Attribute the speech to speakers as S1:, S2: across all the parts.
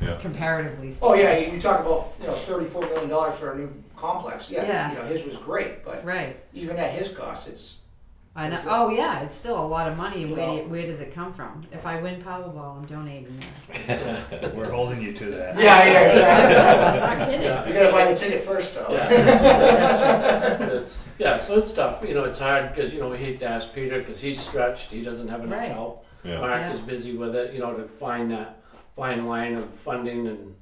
S1: Yeah.
S2: comparatively speaking.
S3: Oh, yeah, you you talk about, you know, thirty-four million dollars for a new complex,
S2: Yeah.
S3: yeah, you know, his was great, but
S2: Right.
S3: even at his cost, it's,
S2: I know.
S3: Is it-
S2: Oh yeah, it's still a lot of money. Where, do
S3: Well-
S2: you- where does it come from? If I win Powerball, I'm donating that.
S4: We're holding you to that.
S3: yeah, yeah, exactly.
S5: Not kidding.
S3: You gotta buy the ticket first, though.
S6: Oh, It's, yeah, so it's tough. You know, it's hard because you know we hate to ask Peter because he's stretched. He doesn't have enough
S2: Right.
S6: help.
S1: Yeah.
S6: Mark
S2: Yeah.
S6: is busy with it. You know, to find that fine line of funding and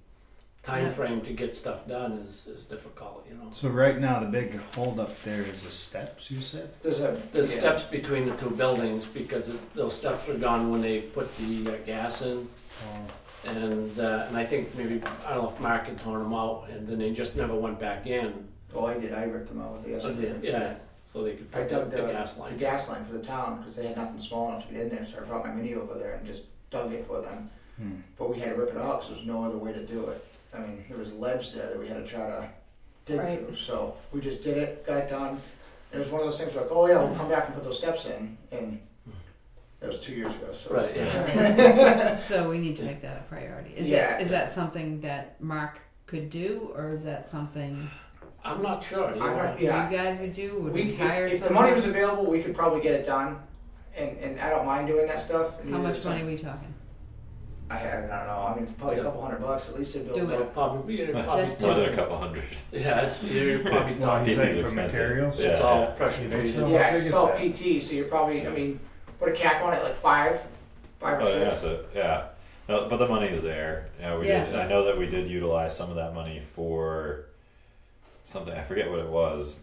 S6: time
S2: Yeah.
S6: frame to get stuff done is is difficult. You know,
S4: So right now, the big holdup there is the steps. You said.
S3: There's a,
S6: the
S3: yeah.
S6: steps between the two buildings because it, those steps are gone when they put the uh, gas in.
S4: Oh,
S6: And uh, and I think maybe I don't know if Mark had torn them out, and then they just never went back in.
S3: Oh, I did, I ripped them out with the
S6: So
S3: excavator.
S6: they- yeah, so they could
S3: I
S6: put the,
S3: dug
S6: the
S3: the,
S6: gas line.
S3: the gas line for the town, because they had nothing small enough to get in there, so I brought my mini over there and just dug it for them.
S4: Hmm.
S3: But we had to rip it out, because there was no other way to do it. I mean, there was ledge there that we had to try to dig
S2: Right.
S3: through, so we just did it, got it done. It was one of those things like, oh yeah, we'll come back and put those steps in, and that was two years ago, so.
S6: Right. Yeah.
S2: so we need to make that a priority. Is
S3: Yeah.
S2: that is that something that Mark could do, or is that something
S6: I'm not sure. You
S3: I
S6: know.
S3: don't- Yeah.
S2: you guys would do? Would we,
S3: We,
S2: hire
S3: if, if the
S2: someone?
S3: money was available, we could probably get it done, and, and I don't mind doing that stuff. and
S2: How
S3: neither
S2: much
S3: does-
S2: money are we talking?
S3: I, I don't know, I mean, probably a couple hundred bucks, at least it'd
S2: Do
S3: build
S2: it.
S3: up.
S6: Probably, you're probably
S2: Just
S1: More
S2: do
S1: than a couple hundred.
S6: Yeah, it's, you're probably
S4: Well,
S6: talking.
S4: he's
S6: It's,
S1: PT's
S4: like for
S1: expensive.
S4: materials?
S1: Yeah,
S6: all
S1: yeah.
S6: pressure
S4: You think so?
S6: treated.
S4: How
S3: Yeah,
S4: big
S3: it's
S4: is
S3: all
S4: that?
S3: PT, so you're probably, I mean, put a cap on it, like five, five or
S1: Oh, yeah,
S3: six.
S1: so, yeah. No, but the money's there. Yeah, we did.
S6: Yeah.
S1: I know that we did utilize some of that money for something. I forget what it was.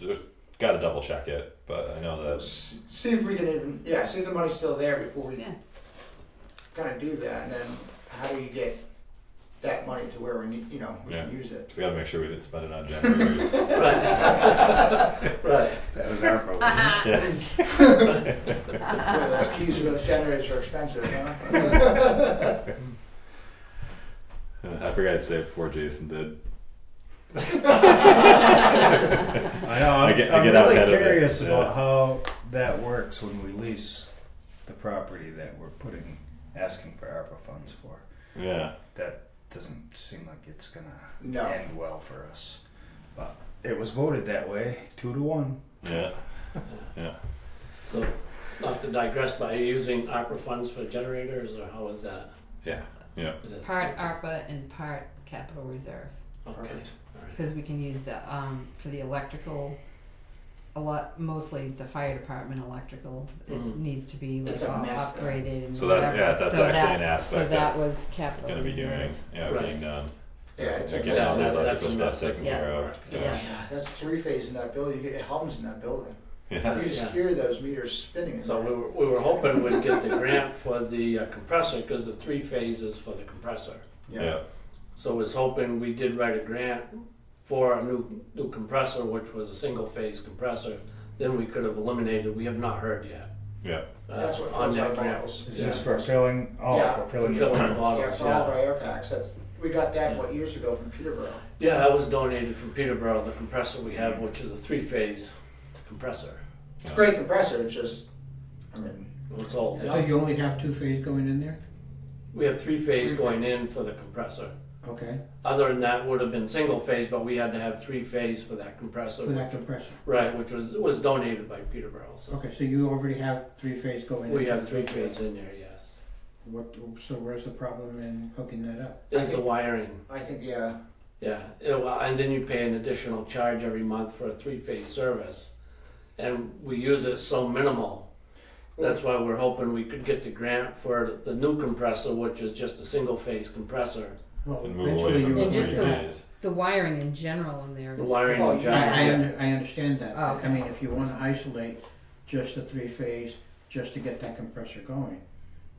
S1: Just got to double check it, but I know that.
S3: S- See if we can even, yeah, see if the money's still there before we
S2: Yeah.
S3: kind of do that, and then how do you get that money to where we need, you know, we can use it.
S1: Just got to make sure we didn't spend it on generators.
S6: Right. right.
S4: That was our problem.
S1: yeah.
S3: Boy, those keys for those generators are expensive, huh?
S1: I forgot to say it before Jason did.
S4: I know. I'm,
S1: I get- I
S4: am
S1: get out
S4: really
S1: ahead of it,
S4: curious
S1: yeah.
S4: about how that works when we lease the property that we're putting asking for ARPA funds for.
S1: Yeah.
S4: That doesn't seem like it's gonna
S3: No.
S4: end well for us. But it was voted that way, two to one.
S1: Yeah.
S6: So, not to digress, but are you using ARPA funds for generators, or how is that?
S1: Yeah. Yeah.
S6: It is-
S2: Part ARPA and part capital reserve
S6: Okay.
S3: Perfect.
S6: All right.
S2: because we can use the um, for the electrical. A lot, mostly the fire department electrical. It
S6: Mm.
S2: needs to be like
S3: Mm-hmm. It's a
S2: all
S3: mess, though.
S2: upgraded and
S1: So that- yeah,
S2: whatever.
S1: that's
S2: so
S1: actually
S2: that,
S1: an aspect
S2: So that was capital
S1: Going to be
S2: reserve.
S1: doing. Yeah,
S6: Right.
S1: being done.
S3: Yeah, it's
S1: to
S3: a
S1: get
S3: mess.
S1: all that
S6: Yeah, that's
S1: electrical
S6: a
S1: stuff
S6: mess.
S1: taken
S2: Yeah.
S1: care of.
S2: Yeah.
S3: That's three phase in that building, you get hums in that building.
S1: Yeah.
S3: You just
S6: Yeah.
S3: hear those meters spinning in
S6: So we
S3: there.
S6: were, we were hoping we'd get the grant for the uh, compressor because the three phases for the compressor.
S1: Yeah.
S6: So was hoping we did write a grant for a new new compressor, which was a single phase compressor. Then we could have eliminated. We have not heard yet.
S1: Yeah.
S6: uh,
S3: That's what
S6: on
S3: fills our
S6: that grant.
S3: bottles.
S4: Is
S6: Yeah.
S4: this for filling? Oh,
S3: Yeah,
S4: for filling.
S6: filling
S4: the-
S6: the bottles.
S3: Yeah, for all of our air packs, that's, we got that, what, years ago from Peterborough.
S6: Yeah, that was donated from Peterborough, the compressor we have, which is a three phase compressor.
S3: It's a great compressor, it's just, I mean,
S6: It's old.
S7: So you only have two phase going in there?
S6: We have three phase
S7: Three
S6: going in for the compressor.
S7: Okay,
S6: Other than that would have been single phase, but we had to have three phase for that compressor.
S7: with that compressor.
S6: Right, which was was donated by Peterborough. So
S7: Okay, so you already have three phase going in?
S6: we have three phase in there, yes.
S7: What, so where's the problem in hooking that up?
S6: Is the wiring.
S3: I think, yeah,
S6: Yeah, it- well, and then you pay an additional charge every month for a three-phase service, and we use it so minimal. That's why we're hoping we could get the grant for the new compressor, which is just a single-phase compressor.
S7: Well,
S1: And move away
S7: eventually
S1: from
S7: you
S1: the
S2: And
S7: would
S2: just
S1: three
S7: have
S2: the-
S7: to.
S1: days.
S2: The wiring in general in there.
S6: The
S2: is-
S6: wiring
S3: Oh,
S6: in
S7: I,
S6: general.
S3: yeah.
S7: I, under- I understand that,
S2: Oh, okay.
S7: I mean, if you wanna isolate just the three phase, just to get that compressor going,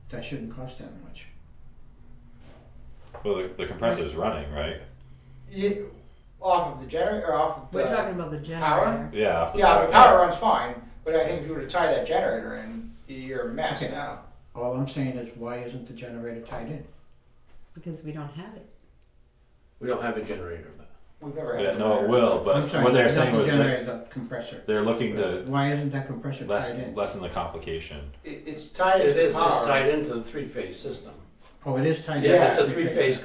S7: that shouldn't cost that much.
S1: Well, the, the compressor's running, right?
S3: Yeah, off of the generator or off of the
S2: We're talking about the
S3: Power?
S2: generator.
S1: Yeah. Off the
S3: yeah,
S1: top,
S3: the power runs fine, but I think if you were to tie that generator in, you're a mess
S7: Okay.
S3: now.
S7: All I'm saying is, why isn't the generator tied in?
S2: Because we don't have it.
S6: We don't have a generator, but
S3: We've never had.
S1: Yeah,
S3: a
S1: no, it
S3: generator.
S1: will.
S7: I'm
S1: But
S7: sorry,
S1: what they're
S7: not
S1: saying
S7: the
S1: was that
S7: generator, the compressor.
S1: they're looking to
S7: Why isn't that compressor tied in?
S1: lessen lessen the complication.
S3: It, it's tied
S6: it
S3: into
S6: is,
S3: power.
S6: it's tied into the three-phase system.
S7: Oh, it is tied.
S6: Yeah,
S7: down.
S6: it's a three-phase